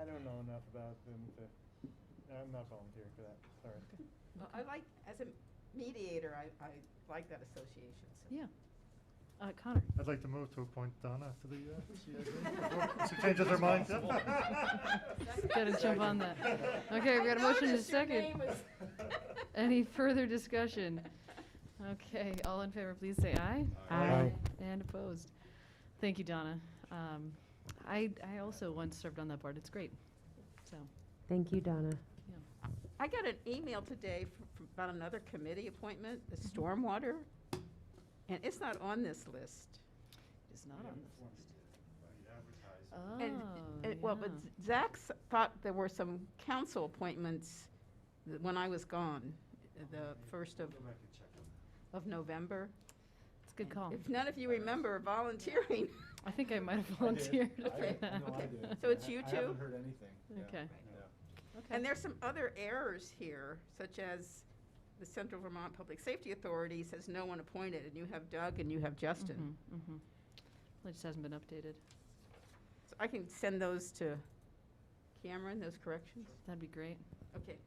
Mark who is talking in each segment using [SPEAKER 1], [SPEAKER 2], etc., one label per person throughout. [SPEAKER 1] I don't know enough about them to, I'm not volunteering for that, sorry.
[SPEAKER 2] Well, I like, as a mediator, I, I like that association, so.
[SPEAKER 3] Yeah. Uh, Connor?
[SPEAKER 4] I'd like to move to appoint Donna to the, uh,
[SPEAKER 1] Yeah.
[SPEAKER 4] she changes her mind.
[SPEAKER 3] Gotta jump on that. Okay, we got a motion and a second. Any further discussion? Okay, all in favor, please say aye.
[SPEAKER 4] Aye.
[SPEAKER 3] And opposed. Thank you, Donna. Um, I, I also once served on that board. It's great. So,
[SPEAKER 5] Thank you, Donna.
[SPEAKER 3] yeah.
[SPEAKER 2] I got an email today fr- fr- about another committee appointment, the
[SPEAKER 3] Mm-hmm.
[SPEAKER 2] stormwater, and it's not on this list.
[SPEAKER 3] It's not on this list.
[SPEAKER 2] And-
[SPEAKER 3] Oh,
[SPEAKER 6] uh,
[SPEAKER 2] and- Well, but
[SPEAKER 3] yeah.
[SPEAKER 2] Zach s- thought there were some council appointments th- when I was gone,
[SPEAKER 3] Oh,
[SPEAKER 2] the first of,
[SPEAKER 1] Go back and check on that.
[SPEAKER 2] of November.
[SPEAKER 3] It's a good call.
[SPEAKER 2] If none of you remember volunteering,
[SPEAKER 3] I think I might have
[SPEAKER 6] I did.
[SPEAKER 3] volunteered
[SPEAKER 6] I
[SPEAKER 3] for
[SPEAKER 6] did.
[SPEAKER 3] that.
[SPEAKER 6] No, I did.
[SPEAKER 2] So it's
[SPEAKER 6] I-
[SPEAKER 2] you
[SPEAKER 6] I
[SPEAKER 2] two?
[SPEAKER 6] haven't heard anything. Yeah.
[SPEAKER 3] Okay.
[SPEAKER 6] Yeah.
[SPEAKER 3] Okay.
[SPEAKER 2] And there's some other errors here, such as the Central Vermont Public Safety Authority says no one appointed, and you have Doug and you have Justin.
[SPEAKER 3] Mhm, mhm. Well, It just hasn't been updated.
[SPEAKER 2] So I can send those to Cameron, those corrections?
[SPEAKER 3] That'd be great.
[SPEAKER 2] Okay.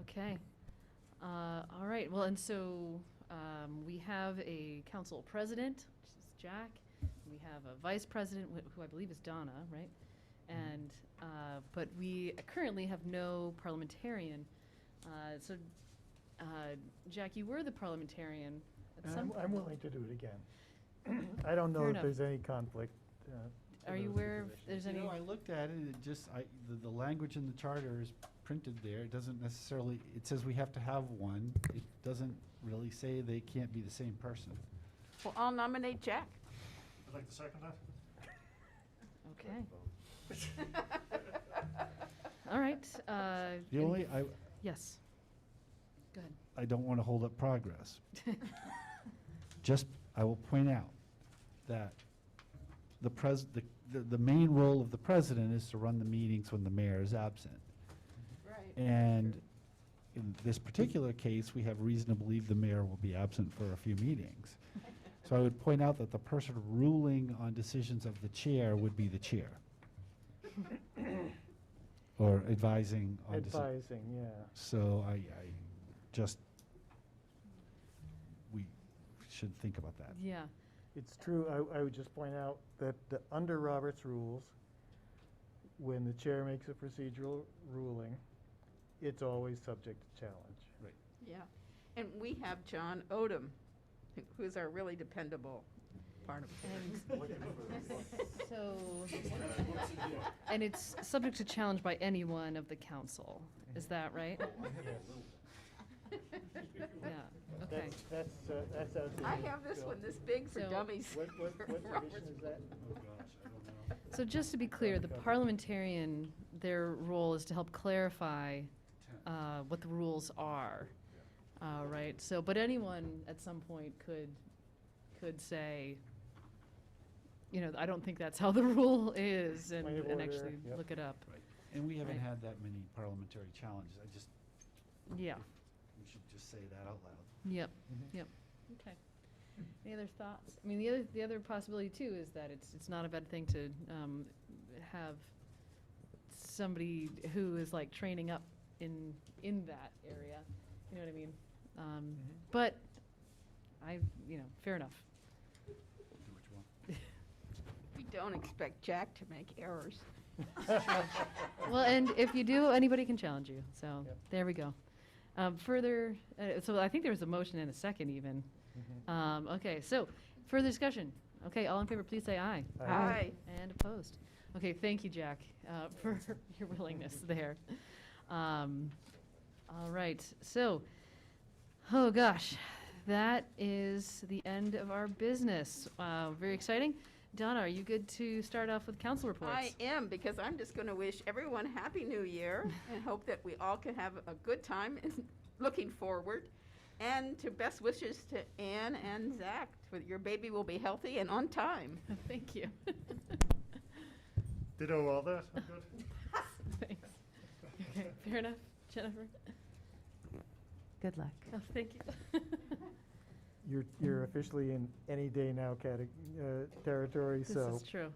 [SPEAKER 3] Okay. Uh, All right, well, and so um, we have a council president, which is Jack. We have a vice president, wh- who I believe is Donna, right?
[SPEAKER 6] Mm-hmm.
[SPEAKER 3] And, uh, but we currently have no parliamentarian. Uh, So, uh, Jack, you were the parliamentarian at
[SPEAKER 1] And
[SPEAKER 3] some
[SPEAKER 1] I'm, I'm
[SPEAKER 3] point.
[SPEAKER 1] willing to do it again. I don't
[SPEAKER 3] Fair
[SPEAKER 1] know if
[SPEAKER 3] enough.
[SPEAKER 1] there's any conflict. uh, to
[SPEAKER 3] Are you
[SPEAKER 1] those
[SPEAKER 3] aware if
[SPEAKER 1] positions.
[SPEAKER 3] there's
[SPEAKER 6] You
[SPEAKER 3] any?
[SPEAKER 6] know, I looked at it, it just, I, the, the language in the charter is printed there, it doesn't necessarily, it says we have to have one, it doesn't really say they can't be the same person.
[SPEAKER 2] Well, I'll nominate Jack.
[SPEAKER 4] I'd like to second that.
[SPEAKER 3] Okay, all right. uh,
[SPEAKER 6] The
[SPEAKER 3] any-
[SPEAKER 6] only, I,
[SPEAKER 3] Yes. Go ahead.
[SPEAKER 6] I don't want to hold up progress. Just, I will point out that the pres, the, the, the main role of the president is to run the meetings when the mayor is absent.
[SPEAKER 2] Right.
[SPEAKER 6] And in this particular case, we have reason to believe the mayor will be absent for a few meetings. So I would point out that the person ruling on decisions of the chair would be the chair. Or advising on. deci-
[SPEAKER 1] Advising, yeah.
[SPEAKER 6] So I, I just, we should think about that.
[SPEAKER 3] Yeah,
[SPEAKER 1] It's true, I, I would just point out that the- under Robert's rules, when the chair makes a procedural ruling, it's always subject to challenge.
[SPEAKER 6] Right.
[SPEAKER 2] Yeah. And we have John Odom, who- who's our really dependable part of
[SPEAKER 3] and
[SPEAKER 2] it.
[SPEAKER 3] so, and it's subject to challenge by anyone of the council, is that right? Yeah, okay.
[SPEAKER 1] That's, that's, uh, that's out there.
[SPEAKER 2] I have this one, this big for
[SPEAKER 3] So-
[SPEAKER 2] dummies.
[SPEAKER 1] What, what, what
[SPEAKER 2] Robert's
[SPEAKER 1] tradition is that?
[SPEAKER 4] Oh, gosh, I don't know.
[SPEAKER 3] So just to be clear, the parliamentarian, their role is to help clarify uh, what the rules are, Uh, right? So, but anyone at some point could, could say, you know, I don't think that's how the rule is, and
[SPEAKER 1] Point of
[SPEAKER 3] and
[SPEAKER 1] order,
[SPEAKER 3] actually
[SPEAKER 1] yep.
[SPEAKER 3] look it up.
[SPEAKER 6] Right. And we haven't
[SPEAKER 3] Right.
[SPEAKER 6] had that many parliamentary challenges. I just,
[SPEAKER 3] Yeah,
[SPEAKER 6] we should just say that out loud.
[SPEAKER 3] yep, yep. Okay. Any other thoughts? I mean, the other, the other possibility too is that it's, it's not a bad thing to um, have somebody who is like training up in, in that area. You know what I mean? Um,
[SPEAKER 1] Mhm.
[SPEAKER 3] But I, you know, fair enough.
[SPEAKER 6] Do what you want.
[SPEAKER 2] We don't expect Jack to make errors.
[SPEAKER 3] Well, and if you do, anybody can challenge you. So
[SPEAKER 1] Yep.
[SPEAKER 3] there we go. Um, further, uh, so I think there was a motion and a second even.
[SPEAKER 1] Mm-hmm.
[SPEAKER 3] Um, okay, so further discussion. Okay, all in favor, please say aye.
[SPEAKER 1] Aye.
[SPEAKER 2] Aye.
[SPEAKER 3] And opposed. Okay, thank you, Jack, uh, for your willingness there. Um, all right, so, oh gosh, that is the end of our business. Uh, very exciting. Donna, are you good to start off with council reports?
[SPEAKER 2] I am, because I'm just going to wish everyone Happy New Year and hope that we all can have a good time and looking forward. And to best wishes to Anne and Zach, that your baby will be healthy and on time.
[SPEAKER 3] Thank you.
[SPEAKER 4] Ditto all that, I'm good.
[SPEAKER 3] Thanks. Okay, fair enough, Jennifer.
[SPEAKER 5] Good luck.
[SPEAKER 3] Oh, thank you.
[SPEAKER 1] You're, you're officially in any day now cate- uh, territory,
[SPEAKER 3] This
[SPEAKER 1] so
[SPEAKER 3] is true.